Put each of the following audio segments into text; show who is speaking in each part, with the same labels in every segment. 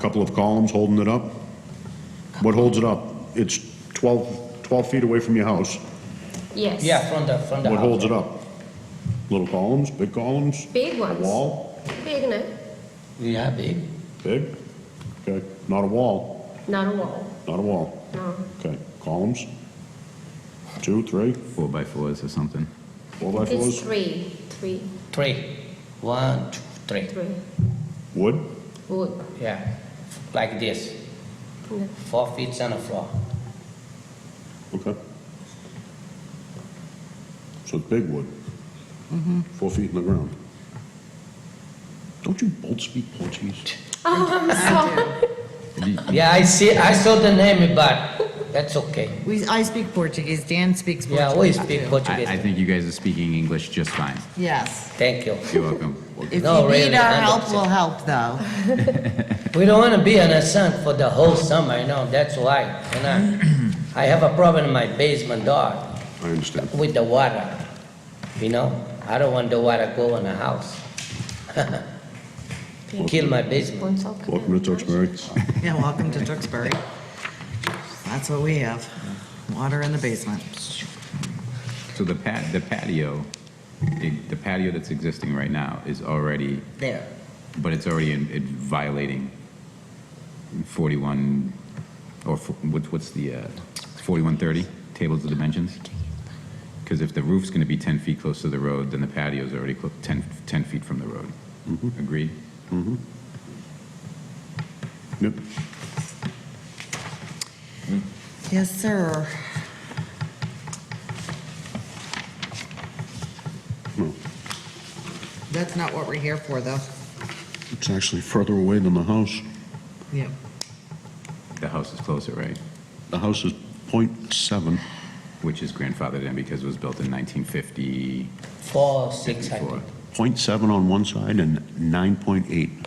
Speaker 1: Couple of columns holding it up. What holds it up? It's 12, 12 feet away from your house.
Speaker 2: Yes.
Speaker 3: Yeah, from the, from the
Speaker 1: What
Speaker 3: house.
Speaker 1: holds it up? Little columns, big columns?
Speaker 2: Big
Speaker 1: A
Speaker 2: ones.
Speaker 1: wall?
Speaker 2: Big, no?
Speaker 3: Yeah, big.
Speaker 1: Big? Okay, not a wall,
Speaker 2: Not a wall,
Speaker 1: not a wall.
Speaker 2: no.
Speaker 1: Okay, columns? Two, three,
Speaker 4: four by fours or something.
Speaker 1: four by
Speaker 2: It's
Speaker 1: fours?
Speaker 2: three, three,
Speaker 3: Three. One, two, three.
Speaker 2: three.
Speaker 1: Wood?
Speaker 2: Wood.
Speaker 3: Yeah. Like this.
Speaker 2: No.
Speaker 3: Four feet on the floor.
Speaker 1: Okay. So it's big wood. Four feet in the ground. Don't you both speak Portuguese?
Speaker 2: Oh, I'm sorry.
Speaker 3: Yeah, I see. I saw the name, but that's okay.
Speaker 5: We, I speak Portuguese, Dan speaks Portuguese.
Speaker 3: Yeah, we speak
Speaker 5: too.
Speaker 4: I, I
Speaker 3: Portuguese.
Speaker 4: think you guys are speaking English just fine.
Speaker 5: Yes.
Speaker 3: Thank you.
Speaker 4: You're welcome.
Speaker 5: If
Speaker 3: No,
Speaker 5: you need
Speaker 3: really,
Speaker 5: our
Speaker 3: I'm
Speaker 5: help,
Speaker 3: upset.
Speaker 5: we'll help, though.
Speaker 3: We don't want to be on a sun for the whole summer. You know that's why. You know, I have a problem in my basement door
Speaker 1: I understand.
Speaker 3: with the water. You know, I don't want the water go in the house. Kill my basement.
Speaker 2: Once I'll come
Speaker 1: Welcome to
Speaker 2: out.
Speaker 1: Tewksbury.
Speaker 5: Yeah, welcome to Tewksbury. That's what we have, water in the basement.
Speaker 4: So the pat, the patio, the the patio that's existing right now is already,
Speaker 5: There.
Speaker 4: but it's already in, it violating 41, or fo- what, what's the, uh, 4130 tables of dimensions? Because if the roof's going to be 10 feet close to the road, then the patio's already clo- 10, 10 feet from the road. Agreed?
Speaker 1: Yep.
Speaker 5: Yes, sir.
Speaker 1: Hmm.
Speaker 5: That's not what we're here for, though.
Speaker 1: It's actually further away than the house.
Speaker 5: Yeah.
Speaker 4: The house is closer, right?
Speaker 1: The house is .7.
Speaker 4: Which is grandfathered in because it was built in 1950.
Speaker 3: Four, six, I think.
Speaker 4: 54.
Speaker 1: 0.7 on one side and 9.8.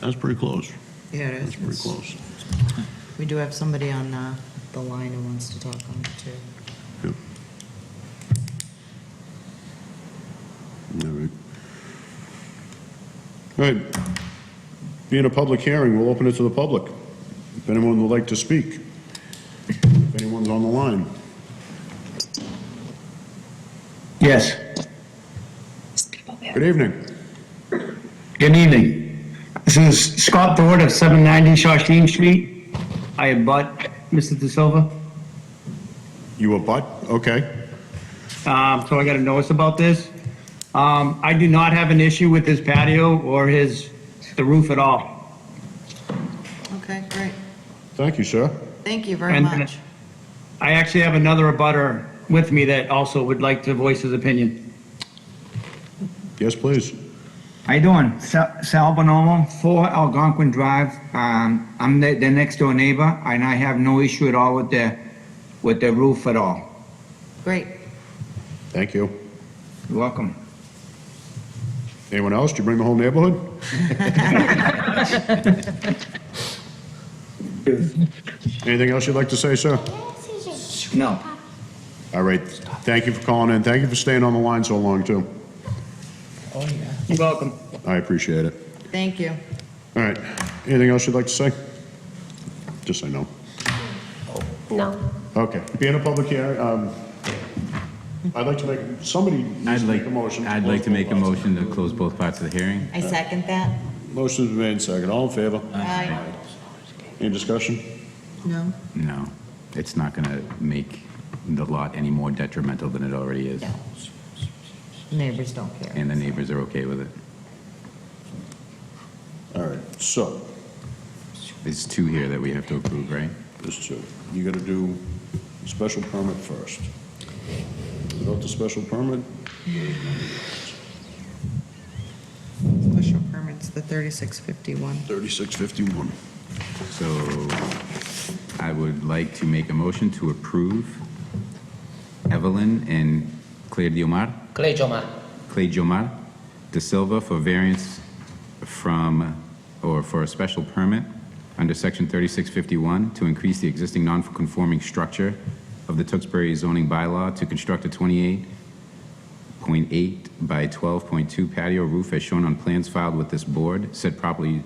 Speaker 1: That's pretty close.
Speaker 5: Yeah, it
Speaker 1: That's
Speaker 5: is.
Speaker 1: pretty close.
Speaker 5: We do have somebody on uh, the line who wants to talk on it, too.
Speaker 1: Yep. All right. All right. Being a public hearing, we'll open it to the public. If anyone would like to speak, if anyone's on the line.
Speaker 6: Yes,
Speaker 1: Good evening.
Speaker 6: good evening. This is Scott Ford of 790 Shawshene Street. I abut Mr. De Silva.
Speaker 1: You a butt? Okay.
Speaker 6: Um, So I got a notice about this. Um, I do not have an issue with his patio or his, the roof at all.
Speaker 5: Okay, great.
Speaker 1: Thank you, sir.
Speaker 5: Thank you very
Speaker 6: And, uh,
Speaker 5: much.
Speaker 6: I actually have another abutter with me that also would like to voice his opinion.
Speaker 1: Yes, please.
Speaker 7: How you doing? Sal Sal Bonomo, 4 Algonquin Drive. Um, I'm the, the next door neighbor, and I have no issue at all with the, with the roof at all.
Speaker 5: Great.
Speaker 1: Thank you.
Speaker 7: You're welcome.
Speaker 1: Anyone else? Did you bring the whole neighborhood? Anything else you'd like to say, sir?
Speaker 7: No.
Speaker 1: All right. Thank you for calling in. Thank you for staying on the line so long, too.
Speaker 3: Oh yeah.
Speaker 6: You're welcome.
Speaker 1: I appreciate it.
Speaker 5: Thank you.
Speaker 1: All right. Anything else you'd like to say? Just say no.
Speaker 2: No.
Speaker 1: Okay. Being a public hearing, um, I'd like to make, somebody needs
Speaker 4: I'd
Speaker 1: to
Speaker 4: like,
Speaker 1: make a motion.
Speaker 4: I'd like to make a motion to close both parts of the hearing.
Speaker 5: I second that.
Speaker 1: Motion's been made second. All in favor?
Speaker 5: Aye.
Speaker 1: Any discussion?
Speaker 5: No?
Speaker 4: No, it's not going to make the lot any more detrimental than it already is.
Speaker 5: Neighbors don't care.
Speaker 4: And the neighbors are okay with it.
Speaker 1: All right. So,
Speaker 4: There's two here that we have to approve, right?
Speaker 1: There's two. You gotta do special permit first. Without the special permit,
Speaker 5: Special permits, the 3651.
Speaker 1: thirty-six fifty-one.
Speaker 4: So I would like to make a motion to approve Evelyn and Claire Diomar,
Speaker 3: Clay Joma.
Speaker 4: Clay Diomar De Silva for variance from, or for a special permit under Section 3651 to increase the existing non-conforming structure of the Tewksbury zoning bylaw to construct a 28.5 point eight by twelve point two patio roof as shown on plans filed with this board. Said property